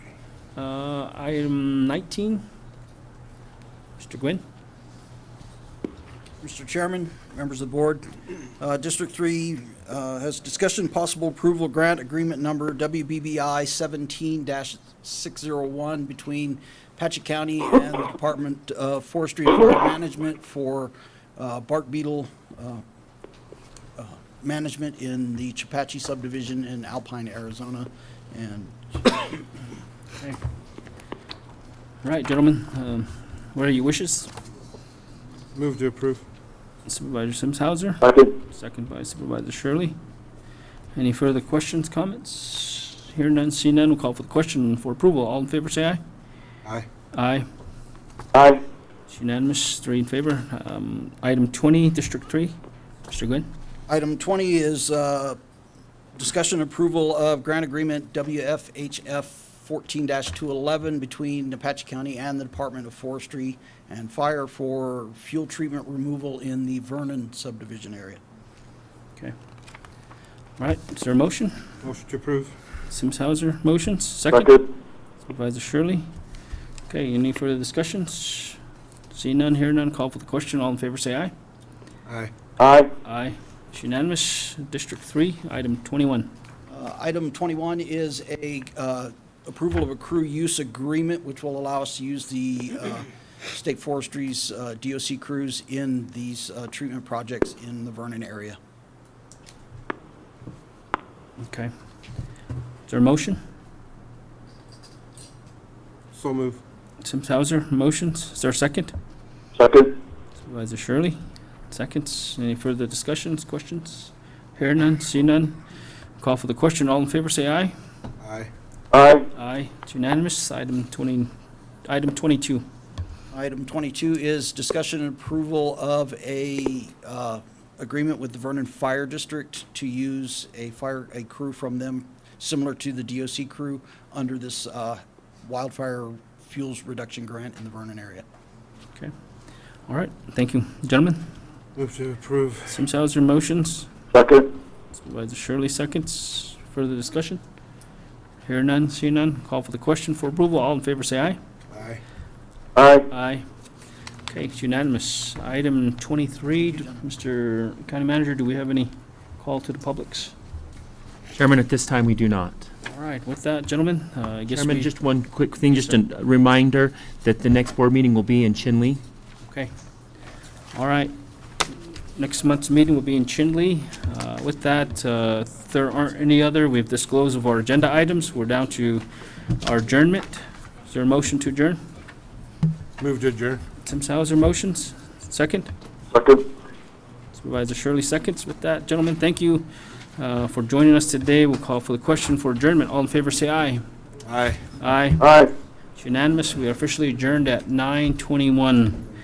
Uh, Item 19, Mr. Gwynn? Mr. Chairman, members of the board, uh, District 3 uh, has discussion possible approval grant agreement number WBBI 17-601 between Patchett County and the Department of Forestry and Forest Management for uh, bark beetle uh, uh, management in the Chapachi subdivision in Alpine, Arizona. And All right, gentlemen, um, what are your wishes? Move to approve. Supervisor Sims Hauser, Second. second by Supervisor Shirley. Any further questions, comments? Hear none, see none, we'll call for the question for approval. All in favor, say aye. Aye. Aye. Aye. It's unanimous, three in favor. Um, Item 20, District 3, Mr. Gwynn? Item 20 is uh, discussion approval of grant agreement WFHF 14-211 between Apache County and the Department of Forestry and Fire for fuel treatment removal in the Vernon subdivision area. Okay. All right, is there a motion? Motion to approve. Sims Hauser, motions, second. Second. Supervisor Shirley. Okay, any further discussions? See none, hear none, call for the question. All in favor, say aye. Aye. Aye. Aye. It's unanimous. District 3, item 21. Uh, Item 21 is a uh, approval of a crew use agreement, which will allow us to use the uh, state forestry's uh, DOC crews in these uh, treatment projects in the Vernon area. Okay. Is there a motion? So move. Sims Hauser, motions. Is there a second? Second. Supervisor Shirley, seconds. Any further discussions, questions? Hear none, see none. Call for the question. All in favor, say aye. Aye. Aye. Aye. It's unanimous. Item 20, item 22. Item 22 is discussion and approval of a uh, agreement with the Vernon Fire District to use a fire, a crew from them, similar to the DOC crew, under this uh, wildfire fuels reduction grant in the Vernon area. All right, thank you. Gentlemen, Move to approve. Sims Hauser, motions. Second. Supervisor Shirley seconds. Further discussion? Hear none, see none. Call for the question for approval. All in favor, say aye. Aye. Aye. Aye. Okay, it's unanimous. Item 23, d- Mr. County Manager, do we have any call to the publics? Chairman, at this time, we do not. All right, with that, gentlemen, uh, I guess Chairman, we, just one quick thing, just a reminder that the next board meeting will be in Chinle. okay. All right. Next month's meeting will be in Chinle. Uh, With that, uh, if there aren't any other, we've disclosed of our agenda items. We're down to our adjournment. Is there a motion to adjourn? Move to adjourn. Tim Sauer motions, second. Second. Supervisor Shirley seconds. With that, gentlemen, thank you uh, for joining us today. We'll call for the question for adjournment. All in favor, say aye. Aye. Aye. Aye. It's unanimous. We are officially adjourned at 9:21.